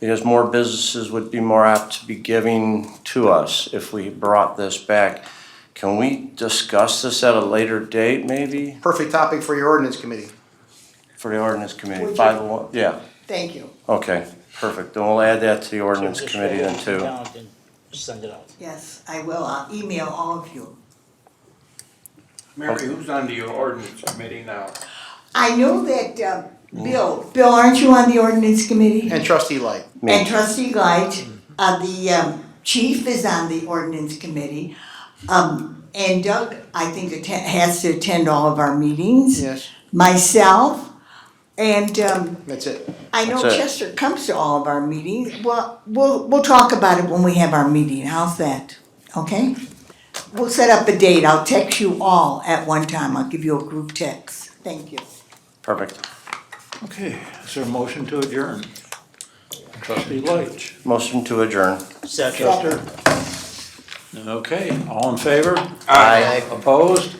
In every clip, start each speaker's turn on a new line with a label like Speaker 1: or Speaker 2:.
Speaker 1: because more businesses would be more apt to be giving to us if we brought this back. Can we discuss this at a later date, maybe,
Speaker 2: Perfect topic for your ordinance committee.
Speaker 1: for the ordinance committee?
Speaker 3: Would
Speaker 1: Five oh one, yeah,
Speaker 3: Thank you.
Speaker 1: okay, perfect. Then we'll add that to the ordinance
Speaker 4: Just
Speaker 1: committee
Speaker 4: write
Speaker 1: then too.
Speaker 4: it down and Send it out.
Speaker 3: Yes, I will. I'll email all of you.
Speaker 5: Mary, who's on your ordinance committee now?
Speaker 3: I know that, uh, Bill, Bill, aren't you on the ordinance committee?
Speaker 2: And trustee Light.
Speaker 1: Me.
Speaker 3: And trustee Light, uh, the, um, chief is on the ordinance committee. Um, and Doug, I think, atten- has to attend all of our meetings.
Speaker 2: Yes,
Speaker 3: Myself, and, um,
Speaker 2: that's it.
Speaker 3: I know
Speaker 1: That's it.
Speaker 3: Chester comes to all of our meetings. Well, we'll, we'll talk about it when we have our meeting. How's that? Okay? We'll set up a date. I'll text you all at one time. I'll give you a group text. Thank you.
Speaker 1: Perfect.
Speaker 6: Okay, is there a motion to adjourn? Trustee Leach.
Speaker 1: Motion to adjourn.
Speaker 4: Second.
Speaker 6: Okay, all in favor?
Speaker 1: Aye.
Speaker 6: Opposed?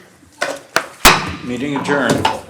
Speaker 6: Meeting adjourned.